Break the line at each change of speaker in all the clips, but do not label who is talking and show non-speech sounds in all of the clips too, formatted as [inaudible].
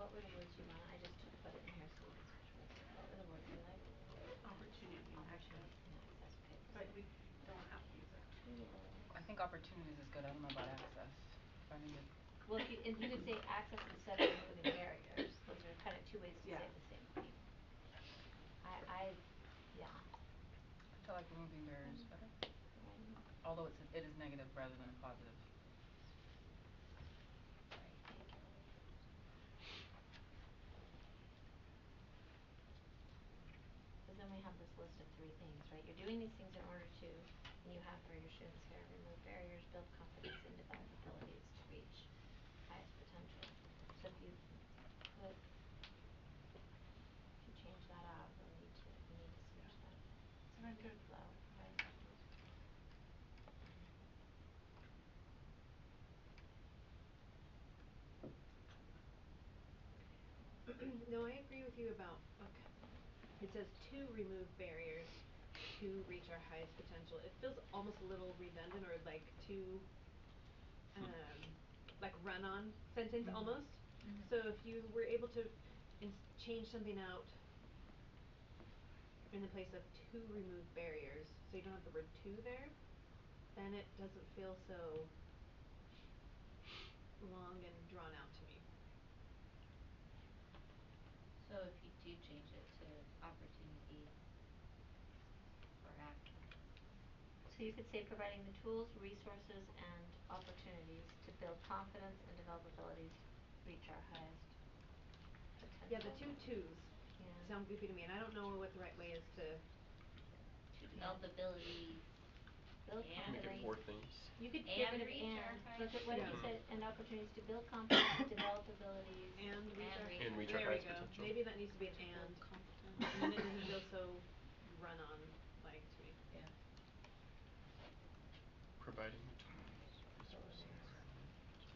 what were the words you want? I just put it in here so it's What were the words you liked?
Opportunity,
Opportunity and access, okay.
but we don't have to use it.
I think opportunities is good, I don't know about access, I think it,
Well, if you, if you could say access instead of removing barriers, those are kind of two ways to
Yeah.
say the same thing. I, I, yeah.
I feel like removing barriers is better,
Um,
although it's, it is negative rather than a positive.
Cause then we have this list of three things, right? You're doing these things in order to, and you have for your students here, remove barriers, build confidence, and develop abilities to reach highest potential. So if you put, if you change that out, we'll need to, we need to switch that
So I'm good.
flow, right?
[clears throat] No, I agree with you about, okay, it says to remove barriers to reach our highest potential. It feels almost a little redundant or like too, um, like run-on sentence
Mhm.
almost.
Mhm.
So if you were able to ins- change something out in the place of to remove barriers, so you don't have the word to there, then it doesn't feel so long and drawn out to me.
So if you do change it to opportunity or act. So you could say providing the tools, resources, and opportunities to build confidence and develop abilities to reach our highest potential.
Yeah, the two twos
Yeah.
sound goofy to me, and I don't know what the right way is to,
To develop abilities, build
Can we
confidence.
Make it four things.
you could
Yeah,
give
but
it an
if
and,
and, look at what if you
Yeah.
said, and opportunities to build confidence, develop abilities,
and reach our.
And reach our highest potential.
There we go, maybe that needs to be an and, and then it doesn't feel so run-on like to me.
Yeah.
Providing the tools, resources.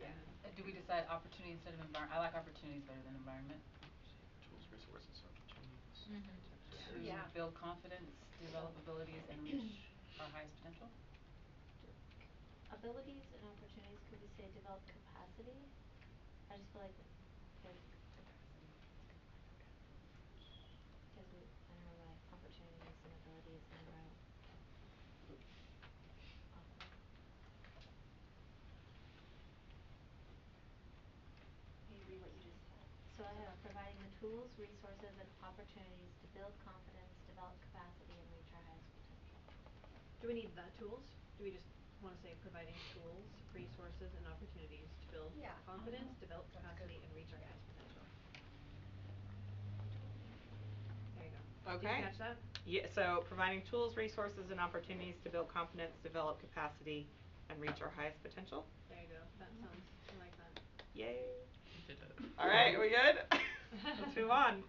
Yeah. Uh, do we decide opportunity instead of envir- I like opportunities better than environment.
Tools, resources, opportunities.
Mhm.
To
Yeah.
build confidence, develop abilities, and reach our highest potential.
abilities and opportunities, could we say develop capacity? I just feel like there's Cause we, I don't know why, opportunities and abilities in a row. Awful. Can you read what you just said? So I have providing the tools, resources, and opportunities to build confidence, develop capacity, and reach our highest potential.
Do we need the tools? Do we just wanna say providing tools, resources, and opportunities to build
Yeah.
confidence,
Mhm.
develop
That's good.
capacity, and reach our highest potential? There you go. Did
Okay.
you catch that?
Yeah, so providing tools, resources, and opportunities to build confidence, develop capacity, and reach our highest potential.
There you go, that sounds, I like that.
Yay.
Did it.
All right, we good? [laughs] Let's move on.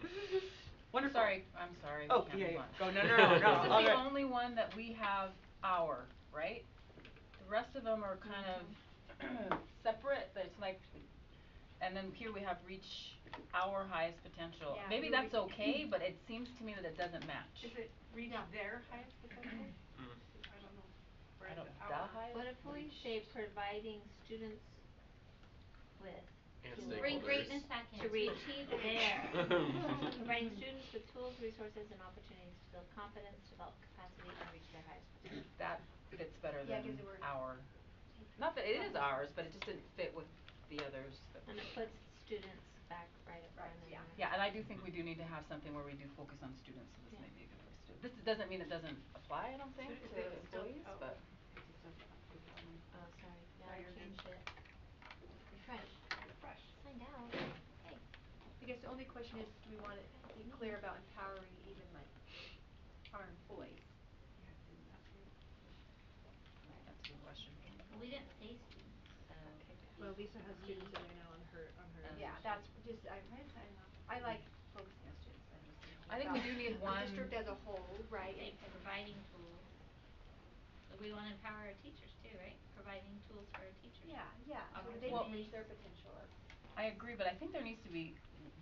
Wonderful.
Sorry, I'm sorry, we
Oh,
can't
yeah,
move
yeah.
on.
Go, no, no, no, no, all
[laughs] This is the
good.
only one that we have our, right? The rest of them are kind of [clears throat] separate, but it's like, and then here we have reach our highest potential.
Yeah,
Maybe
we-
that's okay, but it seems to me that it doesn't match.
Is it read their highest potential?
Mm.
I don't know. Or
I
is
don't,
it
the
our-
highest?
What if we
reach-
say providing students with
And
tools-
stakeholders.
bring greatness to reach their [laughs] providing students with tools, resources and opportunities to build confidence, develop capacity and reach their highest potential.
That fits better
Yeah,
than
'cause the word-
our. Not that it is ours, but it just didn't fit with the others that.
And it puts students back right up front
Right, yeah.
and right.
Yeah, and I do think we do need to have something where we do focus on students, so this
Yeah.
may be a good place to do it. This doesn't mean it doesn't apply, I don't
So
think,
is
to
it still-
employees,
oh,
but.
it just doesn't include that one.
Oh, sorry, yeah,
Now
I
you're
changed it. Refresh,
Refresh.
find out, hey.
I guess the only question is, do we want to be clear about empowering even like our employees?
Yeah, didn't that do it?
That's a good question.
We didn't say students, so.
Okay.
Well, Lisa has students in there now on her, on her.
Um,
Yeah, that's just, I, I like focusing on students, I'm just thinking
I think we
about
do need
The district
one-
as a whole, right, and and
providing tools. We wanna empower our teachers too, right? Providing tools for our teachers.
yeah, yeah, so that they
Well-
can reach their potential as
I agree, but I think there needs to be,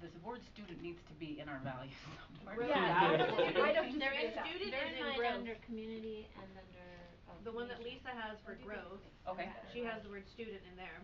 this word student needs to be in our values somewhere.
Right. Yeah, I don't
think- I
[laughs]
don't
There
disagree
is
with that.
student
They're
is in
mine
growth.
under community and under, oh,
The one that
community.
Lisa has for
Or do they
growth,
Okay.
Yeah.
she has the word student in there.